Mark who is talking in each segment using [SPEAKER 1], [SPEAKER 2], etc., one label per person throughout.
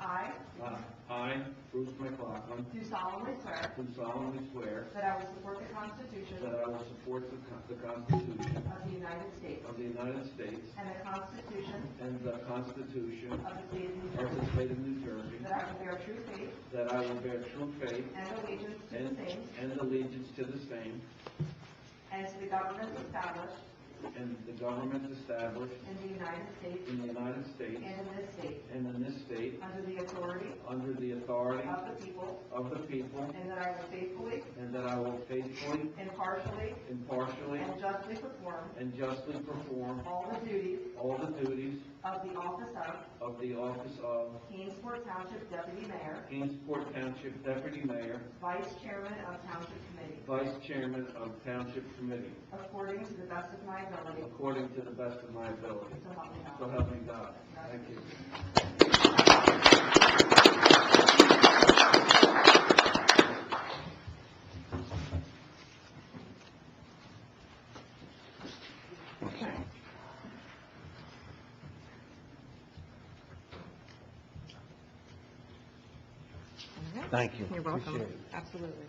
[SPEAKER 1] I
[SPEAKER 2] Uh, I, Bruce McLaughlin,
[SPEAKER 1] do solemnly swear
[SPEAKER 2] do solemnly swear
[SPEAKER 1] that I will support the Constitution
[SPEAKER 2] that I will support the Con- the Constitution
[SPEAKER 1] of the United States
[SPEAKER 2] of the United States
[SPEAKER 1] and the Constitution
[SPEAKER 2] and the Constitution
[SPEAKER 1] of the State of New
[SPEAKER 2] of
[SPEAKER 1] Jersey,
[SPEAKER 2] the State of New Jersey,
[SPEAKER 1] that I will bear true faith
[SPEAKER 2] that I will bear true faith
[SPEAKER 1] and allegiance to the
[SPEAKER 2] and
[SPEAKER 1] same
[SPEAKER 2] and allegiance to the same,
[SPEAKER 1] and to the governments established
[SPEAKER 2] and the government established
[SPEAKER 1] in the United States
[SPEAKER 2] in the United States
[SPEAKER 1] and in this state,
[SPEAKER 2] and in this state,
[SPEAKER 1] under the authority
[SPEAKER 2] under the authority
[SPEAKER 1] of the people,
[SPEAKER 2] of the people,
[SPEAKER 1] and that I will faithfully,
[SPEAKER 2] and that I will faithfully,
[SPEAKER 1] impartially,
[SPEAKER 2] impartially,
[SPEAKER 1] and justly perform
[SPEAKER 2] and justly perform
[SPEAKER 1] all the duties
[SPEAKER 2] all the duties
[SPEAKER 1] of the office of
[SPEAKER 2] of the office of
[SPEAKER 1] Kingsport Township Deputy Mayor,
[SPEAKER 2] Kingsport Township Deputy Mayor,
[SPEAKER 1] Vice Chairman of Township Committee,
[SPEAKER 2] Vice Chairman of Township Committee,
[SPEAKER 1] according to the best of my ability,
[SPEAKER 2] according to the best of my ability.
[SPEAKER 1] so help me God.
[SPEAKER 2] So help me God. Thank you.
[SPEAKER 3] Thank you.
[SPEAKER 4] You're welcome.
[SPEAKER 3] Appreciate it.
[SPEAKER 4] Absolutely.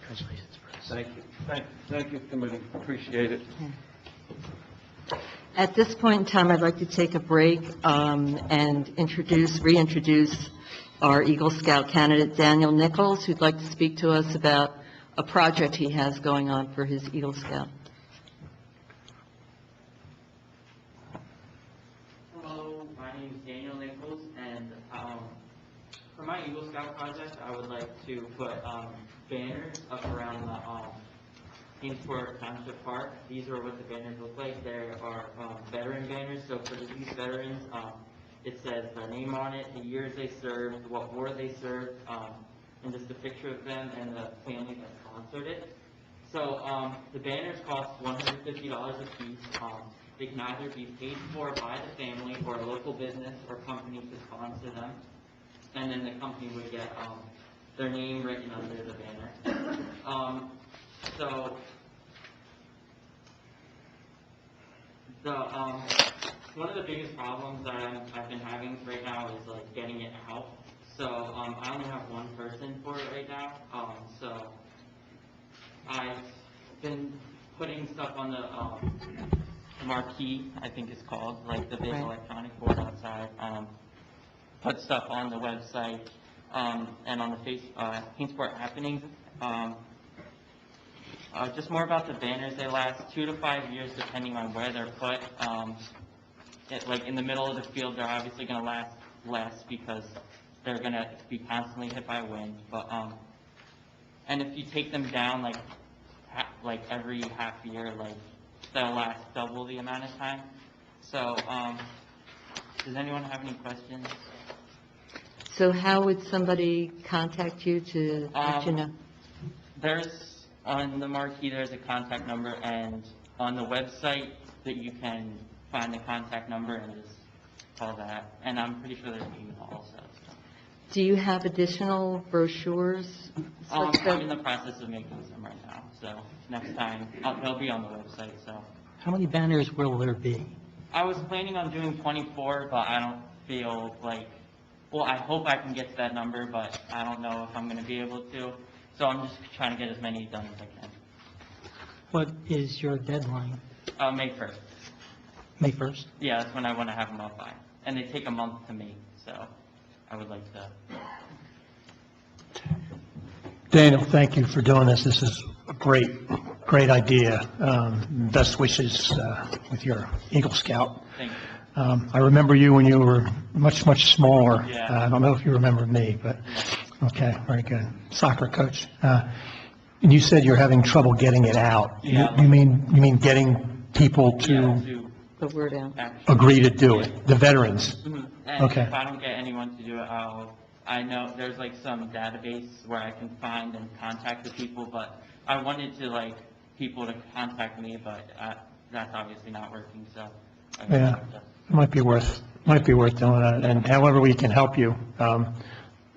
[SPEAKER 3] Congratulations, Bruce. Thank you. Thank- Thank you, committee. Appreciate it.
[SPEAKER 4] At this point in time, I'd like to take a break um, and introduce, reintroduce our Eagle Scout candidate, Daniel Nichols, who'd like to speak to us about a project he has going on for his Eagle Scout.
[SPEAKER 5] Hello, my name is Daniel Nichols, and um, for my Eagle Scout project, I would like to put um, banners up around the um, Kingsport Township Park. These are what the banners look like. There are um, veteran banners, so for these veterans, um, it says their name on it, the years they served, what war they served, um, and just a picture of them and the family that sponsored it. So, um, the banners cost one hundred fifty dollars a piece, um, they can either be paid for by the family or a local business or company to sponsor them. And then the company would get, um, their name written under the banner. Um, so, the, um, one of the biggest problems that I'm, I've been having right now is like getting it out. So, um, I only have one person for it right now, um, so I've been putting stuff on the, um, marquee, I think it's called, like the big
[SPEAKER 4] Right.
[SPEAKER 5] electronic board outside, um, put stuff on the website, um, and on the face, uh, Kingsport Happenings, um, uh, just more about the banners, they last two to five years depending on where they're put, um, it, like, in the middle of the field, they're obviously gonna last less because they're gonna be constantly hit by wind, but, um, and if you take them down, like, ha, like, every half year, like, they'll last double the amount of time, so, um, does anyone have any questions?
[SPEAKER 4] So how would somebody contact you to let you
[SPEAKER 5] Um,
[SPEAKER 4] know?
[SPEAKER 5] There's, on the marquee, there's a contact number, and on the website, that you can find the contact number and just call that, and I'm pretty sure there's an email also. so.
[SPEAKER 4] Do you have additional brochures?
[SPEAKER 5] Um,
[SPEAKER 4] such
[SPEAKER 5] I'm
[SPEAKER 4] that-
[SPEAKER 5] in the process of making some right now, so next time, I'll- they'll be on the website, so.
[SPEAKER 6] How many banners will there be?
[SPEAKER 5] I was planning on doing 24, but I don't feel like, well, I hope I can get to that number, but I don't know if I'm gonna be able to, so I'm just trying to get as many done as I can.
[SPEAKER 6] What is your deadline?
[SPEAKER 5] Uh, May 1st.
[SPEAKER 6] May 1st?
[SPEAKER 5] Yeah, that's when I want to have them up by. And they take a month to make, so I would like to.
[SPEAKER 6] Daniel, thank you for doing this. This is a great, great idea. Um, Best wishes uh, with your Eagle Scout.
[SPEAKER 5] Thank you.
[SPEAKER 6] Um, I remember you when you were much, much smaller.
[SPEAKER 5] Yeah.
[SPEAKER 6] Uh, I don't know if you remember me, but, okay, very good. Soccer coach. Uh, And you said you're having trouble getting it out. You-
[SPEAKER 5] Yeah.
[SPEAKER 6] You mean, you mean getting people
[SPEAKER 5] Yeah,
[SPEAKER 6] to
[SPEAKER 5] to
[SPEAKER 4] The word out.
[SPEAKER 5] action.
[SPEAKER 6] agree to do it, the veterans?
[SPEAKER 5] Mhm. And
[SPEAKER 6] Okay.
[SPEAKER 5] if I don't get anyone to do it, I'll, I know there's like some database where I can find and contact the people, but I wanted to like people to contact me, but uh, that's obviously not working, so. I guess
[SPEAKER 6] Yeah.
[SPEAKER 5] I'll just-
[SPEAKER 6] It Might be worth, might be worth doing that, and however we can help you, um,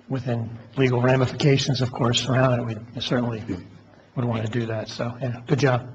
[SPEAKER 6] within legal ramifications, of course, around it, we certainly would want to do that, so, yeah, good job.